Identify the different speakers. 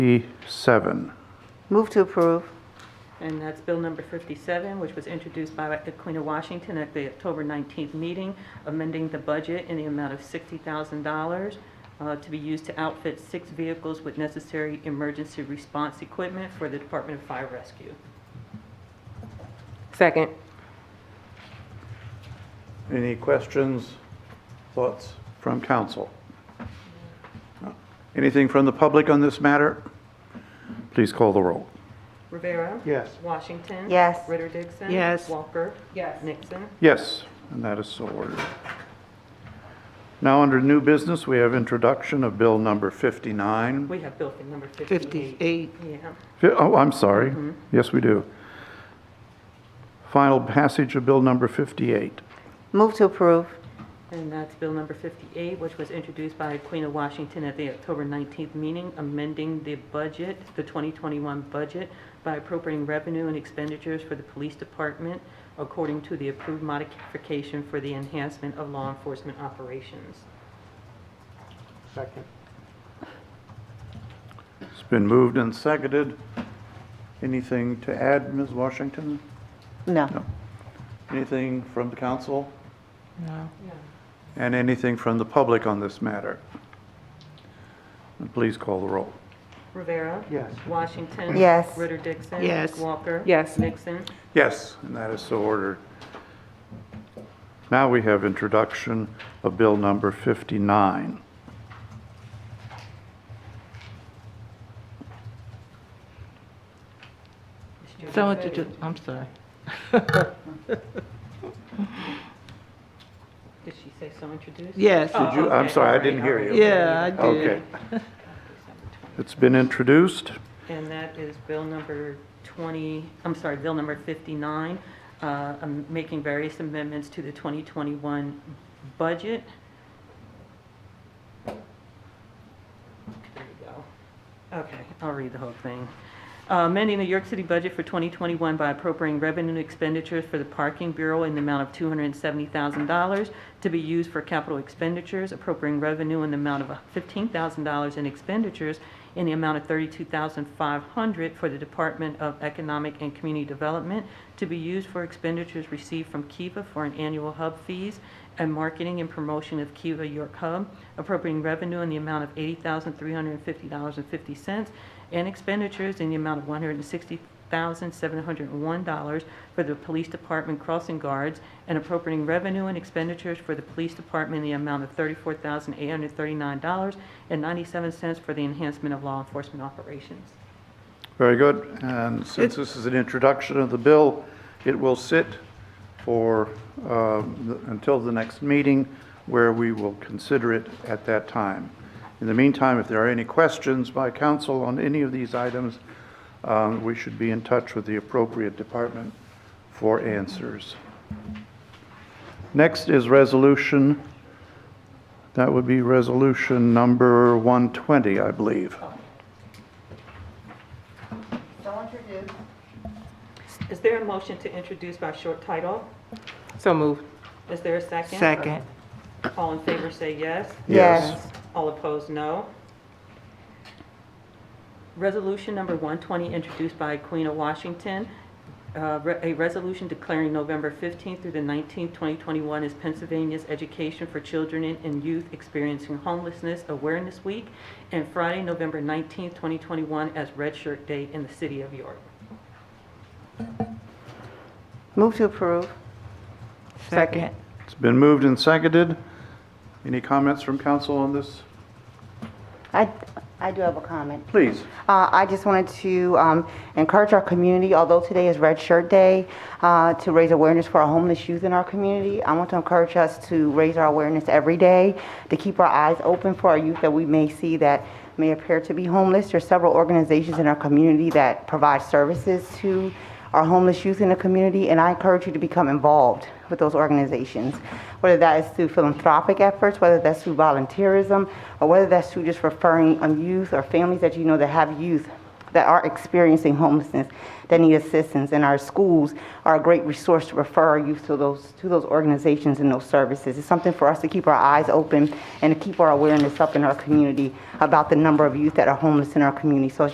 Speaker 1: 57.
Speaker 2: Move to approve.
Speaker 3: And that's Bill number 57, which was introduced by the Queen of Washington at the October 19th meeting, amending the budget in the amount of $60,000 uh, to be used to outfit six vehicles with necessary emergency response equipment for the Department of Fire Rescue.
Speaker 4: Second.
Speaker 1: Any questions, thoughts from council? Anything from the public on this matter? Please call the roll.
Speaker 3: Rivera.
Speaker 1: Yes.
Speaker 3: Washington.
Speaker 2: Yes.
Speaker 3: Ritter Dixon.
Speaker 4: Yes.
Speaker 3: Walker. Yes. Nixon.
Speaker 1: Yes, and that is so ordered. Now, under new business, we have introduction of Bill number 59.
Speaker 3: We have Bill for number 58.
Speaker 4: 58.
Speaker 3: Yeah.
Speaker 1: Fi- Oh, I'm sorry. Yes, we do. Final passage of Bill number 58.
Speaker 2: Move to approve.
Speaker 3: And that's Bill number 58, which was introduced by Queen of Washington at the October 19th meeting, amending the budget, the 2021 budget, by appropriating revenue and expenditures for the police department according to the approved modification for the enhancement of law enforcement operations.
Speaker 1: It's been moved and seconded. Anything to add, Ms. Washington?
Speaker 2: No.
Speaker 1: Anything from the council?
Speaker 4: No.
Speaker 1: And anything from the public on this matter? And Please call the roll.
Speaker 3: Rivera. Yes. Washington.
Speaker 2: Yes.
Speaker 3: Ritter Dixon.
Speaker 4: Yes.
Speaker 3: Walker.
Speaker 4: Yes.
Speaker 3: Nixon.
Speaker 1: Yes, and that is so ordered. Now we have introduction of Bill number 59.
Speaker 4: Someone to do, I'm sorry.
Speaker 3: Did she say so introduced?
Speaker 4: Yes.
Speaker 3: Oh,
Speaker 1: you- I'm
Speaker 3: okay,
Speaker 1: sorry, I
Speaker 3: all right,
Speaker 1: didn't hear
Speaker 3: all right.
Speaker 1: you.
Speaker 4: Yeah, I
Speaker 1: Okay.
Speaker 4: did.
Speaker 1: It's been introduced.
Speaker 3: And that is bill number 20, I'm sorry, bill number 59, uh, um, making various amendments to the 2021 budget. There you go. Okay, I'll read the whole thing. Uh, Amending the York City budget for 2021 by appropriating revenue and expenditures for the Parking Bureau in the amount of $270,000 to be used for capital expenditures, appropriating revenue in the amount of $15,000 in expenditures in the amount of $32,500 for the Department of Economic and Community Development to be used for expenditures received from Kiva for an annual hub fees and marketing and promotion of Kiva York Hub, appropriating revenue in the amount of $80,350.50 and expenditures in the amount of $160,701 for the Police Department crossing guards and appropriating revenue and expenditures for the Police Department in the amount of $34,839.97 for the enhancement of law enforcement operations.
Speaker 1: Very good. And since this is an introduction of the bill, it will sit for, um, th- until the next meeting, where we will consider it at that time. In the meantime, if there are any questions by council on any of these items, um, we should be in touch with the appropriate department for answers. Next is resolution, that would be resolution number 120, I believe.
Speaker 3: Is there a motion to introduce by short title?
Speaker 4: So moved.
Speaker 3: Is there a second?
Speaker 4: Second.
Speaker 3: All in favor say yes.
Speaker 1: Yes.
Speaker 3: All opposed, no. Resolution number 120, introduced by Queen of Washington, uh, re- a resolution declaring November 15th through the 19th, 2021 as Pennsylvania's Education for Children and- and Youth Experiencing Homelessness Awareness Week, and Friday, November 19th, 2021 as Red Shirt Day in the city of York.
Speaker 2: Move to approve.
Speaker 4: Second.
Speaker 1: It's been moved and seconded. Any comments from council on this?
Speaker 2: I, I do have a comment.
Speaker 1: Please.
Speaker 2: Uh, I just wanted to um, encourage our community, although today is Red Shirt Day, uh, to raise awareness for our homeless youth in our community. I want to encourage us to raise our awareness every day, to keep our eyes open for our youth that we may see that may appear to be homeless. There's several organizations in our community that provide services to our homeless youth in the community, and I encourage you to become involved with those organizations, whether that is through philanthropic efforts, whether that's through volunteerism, or whether that's through just referring on youth or families that you know that have youth that are experiencing homelessness that need assistance. And our schools are a great resource to refer our youth to those to those organizations and those services. It's something for us to keep our eyes open and to keep our awareness up in our community about the number of youth that are homeless in our community. So